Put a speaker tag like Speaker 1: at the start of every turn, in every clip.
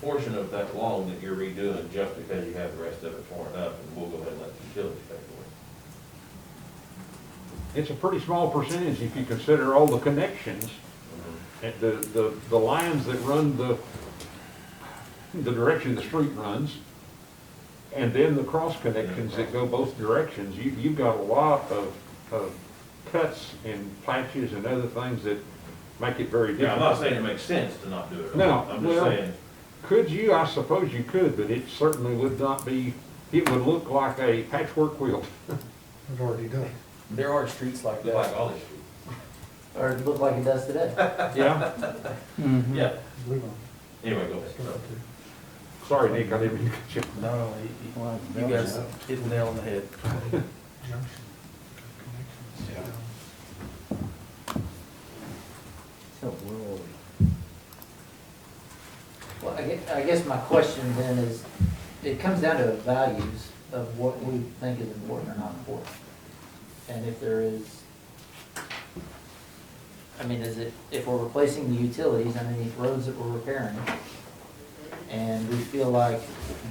Speaker 1: portion of that wall that you're redoing just because you have the rest of it torn up, and we'll go ahead and let the utilities pay for
Speaker 2: It's a pretty small percentage if you consider all the connections,
Speaker 1: Mm-hmm.
Speaker 2: and the, the, the lines that run the, the direction the street runs, and then the cross connections that go both directions. You, you've got a lot of, of cuts and patches and other things that make it very
Speaker 1: it. Yeah, I'm not
Speaker 2: difficult.
Speaker 1: saying it makes sense to not do it.
Speaker 2: No,
Speaker 1: I'm just
Speaker 2: well-
Speaker 1: saying,
Speaker 2: Could you? I suppose you could, but it certainly would not be, it would look like a patchwork quilt.
Speaker 3: It's already done.
Speaker 4: There are streets like
Speaker 1: look like
Speaker 4: that.
Speaker 1: all this street.
Speaker 5: Or it looked like it does today.
Speaker 2: Yeah?
Speaker 1: Yeah,
Speaker 3: Blue one.
Speaker 1: anyway, go ahead.
Speaker 2: Sorry, Nick, I didn't mean to cut you.
Speaker 4: No, you- you you guys hit the nail on the head.
Speaker 3: Junction. Connections.
Speaker 5: So where were we? Well, I guess, I guess my question then is, it comes down to values of what we think is important or not important. And if there is, I mean, is it, if we're replacing the utilities underneath roads that we're repairing, and we feel like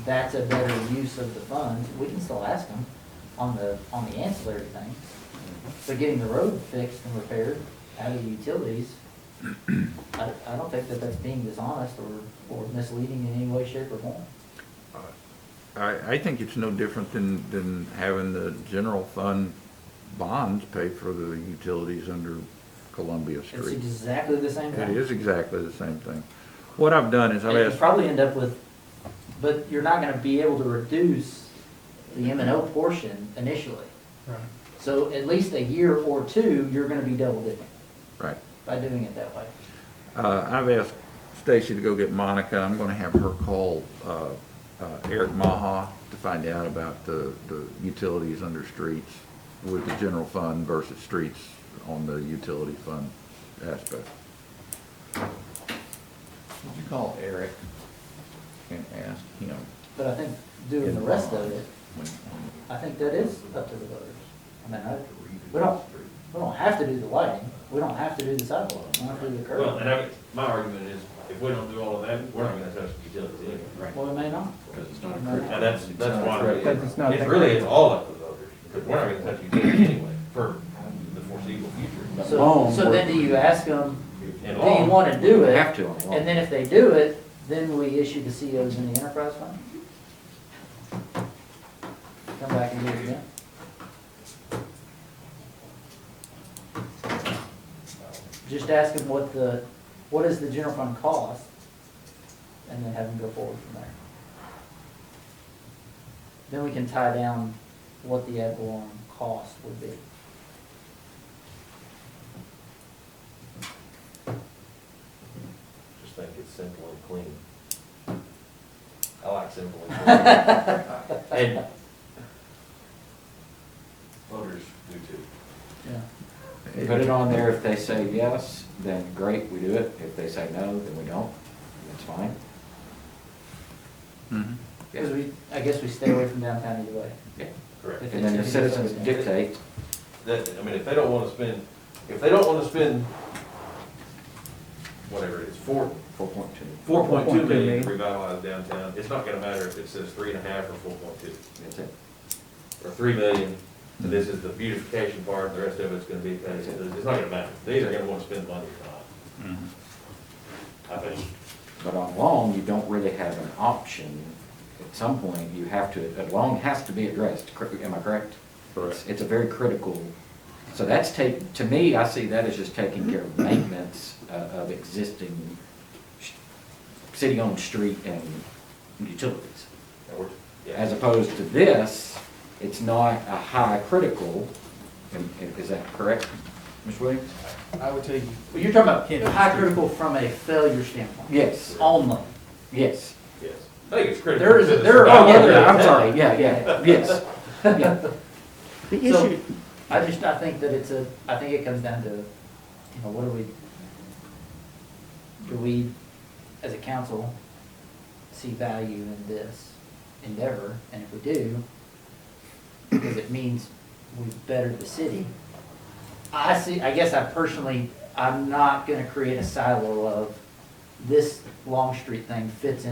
Speaker 5: that's a better use of the funds, we can still ask them on the, on the ancillary things. But getting the road fixed and repaired out of the utilities, I, I don't think that that's being dishonest or, or misleading in any way, shape, or form.
Speaker 6: I, I think it's no different than, than having the general fund bonds pay for the utilities under Columbia
Speaker 5: It's
Speaker 6: Street.
Speaker 5: exactly the same
Speaker 6: It
Speaker 5: thing.
Speaker 6: is exactly the same thing. What I've done is I've
Speaker 5: And you
Speaker 6: asked,
Speaker 5: probably end up with, but you're not gonna be able to reduce the M and O portion initially.
Speaker 3: Right.
Speaker 5: So at least a year or two, you're gonna be double dipping
Speaker 6: right,
Speaker 5: by doing it that way.
Speaker 6: uh, I've asked Stacy to go get Monica. I'm gonna have her call, uh, uh, Eric Maha to find out about the, the utilities under streets with the general fund versus streets on the utility fund aspect. Would you call Eric and ask him?
Speaker 5: But I think doing the rest of it,
Speaker 6: when-
Speaker 5: I think that is up to the voters. I mean, I, we don't, we don't have to do the lighting, we don't have to do the sidewalk, we don't have to do the
Speaker 1: Well, and
Speaker 5: curb.
Speaker 1: I, my argument is, if we don't do all of that, we're not gonna touch the utilities anyway. Right.
Speaker 5: Well, we may not.
Speaker 1: Because it's
Speaker 5: not a
Speaker 1: And that's, that's why,
Speaker 4: Because it's not-
Speaker 1: it's really, it's all up to the voters, because we're not gonna touch utilities anyway, for the foreseeable future.
Speaker 5: So, so then do you ask them, do you
Speaker 1: And all-
Speaker 5: wanna do it?
Speaker 4: to on
Speaker 5: And then if they do it, then we issue the COs in the enterprise fund? Come back and do it again? Just ask them what the, what is the general fund cost? And then have them go forward from there. Then we can tie down what the ad valorem cost would be.
Speaker 1: Just think it's simple and clean. I like simple and clean. And voters do too.
Speaker 5: Yeah.
Speaker 7: Put it on there, if they say yes, then great, we do it, if they say no, then we don't, that's fine.
Speaker 6: Mhm.
Speaker 5: Cause we, I guess we stay away from downtown either way.
Speaker 7: Yeah.
Speaker 1: Correct.
Speaker 7: And then the citizens dictate,
Speaker 1: That, I mean, if they don't wanna spend, if they don't wanna spend, whatever it is, four,
Speaker 7: four point two,
Speaker 1: four point two
Speaker 4: 4.2
Speaker 1: million
Speaker 4: million.
Speaker 1: to revitalize downtown, it's not gonna matter if it says three and a half or four point two.
Speaker 7: that's it.
Speaker 1: or three million, and this is the beautification part, and the rest of it's gonna be, it's it's not gonna matter. These are gonna wanna spend money or not. I think,
Speaker 7: But on loan, you don't really have an option, at some point, you have to, a loan has to be addressed, cor- am I correct? It's- It's a very critical, so that's take, to me, I see that as just taking care of maintenance uh, of existing sh- city-owned street and utilities.
Speaker 1: and we're-
Speaker 7: As
Speaker 1: yeah,
Speaker 7: opposed to this, it's not a high critical, and- and is that correct, Ms. Williams?
Speaker 4: I would tell you,
Speaker 5: Well, you're talking about high critical from a failure standpoint.
Speaker 7: Yes,
Speaker 5: Only.
Speaker 7: yes.
Speaker 1: yes. I think it's critical.
Speaker 5: There is a- there are
Speaker 7: Oh, yeah,
Speaker 5: other-
Speaker 7: yeah, I'm sorry, yeah, yeah, yes. yeah.
Speaker 8: The
Speaker 5: So-
Speaker 8: issue,
Speaker 5: I just, I think that it's a, I think it comes down to, you know, what do we, do we, as a council, see value in this endeavor? And if we do, because it means we've bettered the city. I see, I guess I personally, I'm not gonna create a silo of this Long Street thing fits in